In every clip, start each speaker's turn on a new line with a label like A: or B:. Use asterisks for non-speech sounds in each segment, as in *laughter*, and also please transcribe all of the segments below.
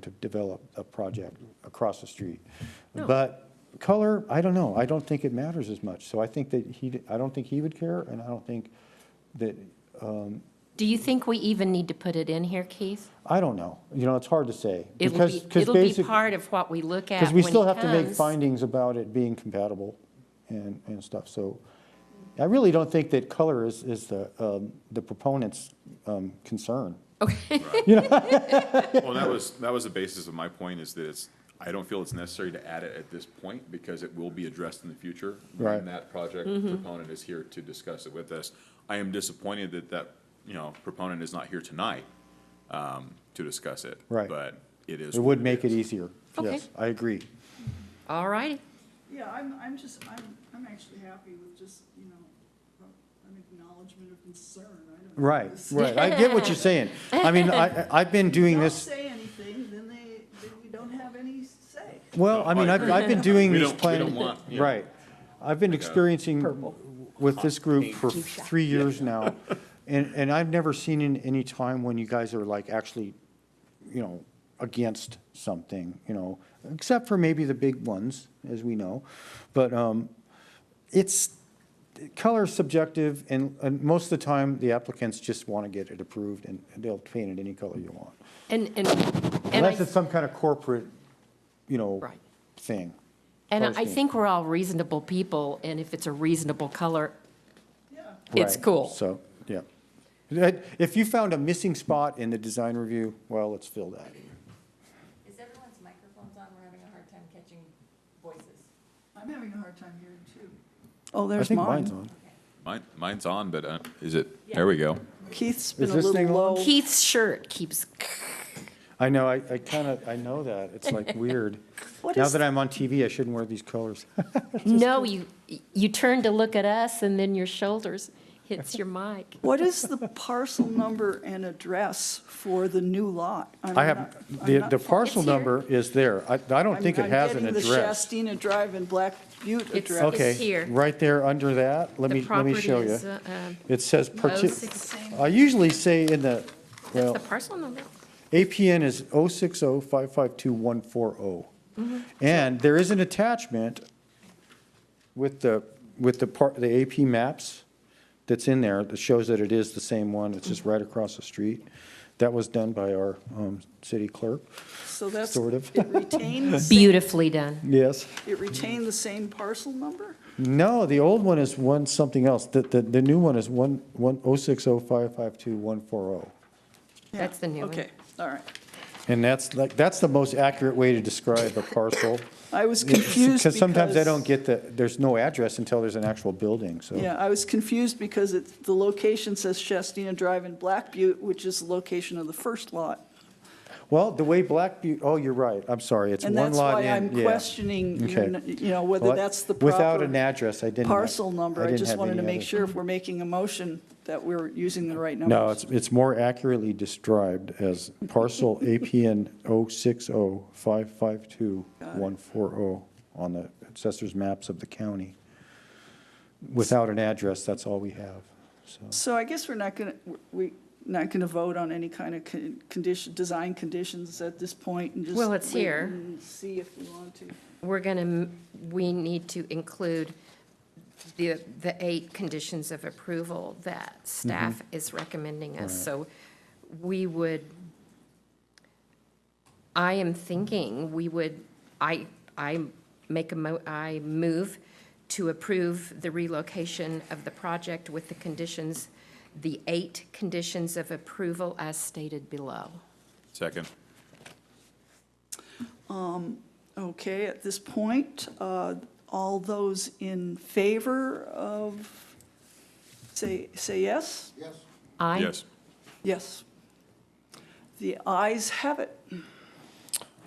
A: to develop a project across the street.
B: No.
A: But color, I don't know, I don't think it matters as much, so I think that he, I don't think he would care, and I don't think that,
B: Do you think we even need to put it in here, Keith?
A: I don't know, you know, it's hard to say.
B: It will
A: because-
B: be,
A: 'cause
B: it'll be
A: basic-
B: part of what we look at
A: Because
B: when
A: we
B: he
A: still have to make
B: comes.
A: findings about it being compatible and, and stuff, so I really don't think that color is, is the, um, the proponent's um, concern.
C: Well, that was, that was the basis of my point, is that it's, I don't feel it's necessary to add it at this point, because it will be addressed in the future.
A: Right.
C: When that project proponent is here to discuss it with us. I am disappointed that that, you know, proponent is not here tonight, um, to discuss it.
A: Right.
C: But it is.
A: It would make it easier,
B: Okay.
A: yes, I agree.
B: *laughs* All righty.
D: Yeah, I'm, I'm just, I'm, I'm actually happy with just, you know, an acknowledgement of concern, I don't. know.
A: Right,
D: Just
A: right. I get what you're saying. I
B: *laughs*
A: mean, I, I've been doing *laughs*
D: Don't
A: this,
D: say anything, then they, then we don't have any say.
A: well, I mean, I've, I've been doing
C: *laughs* We
A: these
C: don't- we don't
A: planning.
C: want, yeah.
A: Right. I've been experiencing with this group for three years
B: *laughs*
A: now. And, and I've never seen in any time when you guys are like actually, you know, against something, you know, except for maybe the big ones, as we know. But, um, it's, color is subjective, and, and most of the time, the applicants just want to get it approved, and they'll paint it any color you want.
B: And, and, and
A: Unless
B: I,
A: it's some kind of corporate, you know,
B: Right.
A: thing.
B: and I
A: posting.
B: think we're all reasonable people, and if it's a reasonable color,
D: Yeah.
B: it's
A: Right.
B: cool.
A: So, yeah. That- If you found a missing spot in the design review, well, let's fill that.
E: Is everyone's microphones on? We're having a hard time catching voices.
D: I'm having a hard time hearing too. Oh,
A: I
D: there's
A: think mine's on.
C: Mine, mine's on, but, uh, is it, there we go.
D: Keith's
A: been Is a this little thing on? low.
B: Keith's shirt keeps,
A: *laughs* I know, I, I kind of, I know that. It's like weird.
D: What
A: Now
D: is-
A: that I'm on TV, I shouldn't wear these colors.
B: no, you, you turn to look at us, and then your shoulders hits your mic.
D: What is the parcel number and address for the new lot? I'm
A: I have,
D: not- I'm
A: the,
D: not-
A: the parcel
B: It's here.
A: number is there. I, I don't
D: I'm-
A: think it
D: I'm
A: has an
D: getting
A: address.
D: The Shastina Drive and Black Butte
B: It's-
D: address.
A: Okay.
B: here.
A: Right there, under that, let
B: The
A: me, let me
B: property
A: show you.
B: is, uh, um,
A: It says, parti-
B: 060.
A: I usually say in the,
B: That's
A: well,
B: the parcel number.
A: APN is 060552140. oh. And there is an attachment with the, with the part, the AP maps that's in there that shows that it is the same one. It's just right across the street. That was done by our um, city clerk.
D: So that's,
A: Sort of.
D: it retained,
B: *laughs*
D: the same-
B: Beautifully done.
A: Yes.
D: it retained the same parcel number?
A: No, the old one is one something else. The, the, the new one is one, one, 060552140.
D: Yeah,
B: That's the new one.
D: Okay, all right.
A: oh. And that's like, that's the most accurate way to describe a parcel.
D: I was confused
A: Because sometimes I
D: because-
A: don't get the, there's no address until there's an actual building, so.
D: Yeah, I was confused because it's, the location says Shastina Drive and Black Butte, which is the location of the first lot.
A: Well, the way Black Butte, oh, you're right, I'm sorry, it's
D: And
A: one
D: that's
A: lot
D: why
A: in,
D: I'm
A: yeah.
D: questioning, your
A: Okay.
D: n- you know,
A: Well,
D: whether
A: I-
D: that's the
A: Without an
D: proper
A: address, I didn't.
D: parcel number. I
A: didn't
D: just
A: have
D: wanted to
A: any
D: make
A: other-
D: sure if we're making a motion that we're using the right numbers.
A: No, it's, it's more accurately described as
D: *laughs*
A: parcel APN 060552140 on the assessor's maps of the county. Without an address, that's all we have, so.
D: So I guess we're not going to, we, not going to vote on any kind of con- condition, design conditions at this point and just.
B: Well, it's
D: wait
B: here.
D: and See if we want to.
B: We're going to, we need to include the, the eight conditions of approval that staff is recommending us. So we would, I am thinking we would, I, I make a mo, I move to approve the relocation of the project with the conditions, the eight conditions of approval as stated below.
C: Second.
D: Okay, at this point, uh, all those in favor of, say, say yes?
B: I
C: Yes.
D: Yes. The ayes have it.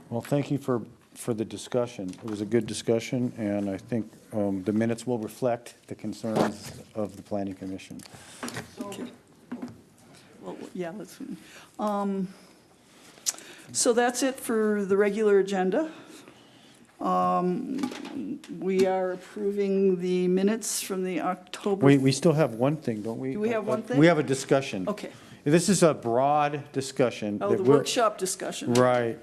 A: Well, thank you for, for the discussion. It was a good discussion, and I think um, the minutes will reflect the concerns of the planning commission.
D: Well, yeah, let's, um, so that's it for the regular agenda. Um, We are approving the minutes from the October.
A: We, we still have one thing, don't we?
D: Do we have one thing?
A: We have a discussion.
D: Okay.
A: This is a broad discussion.
D: Oh,
A: that
D: the
A: we're-
D: Oh, workshop discussion.
A: Right.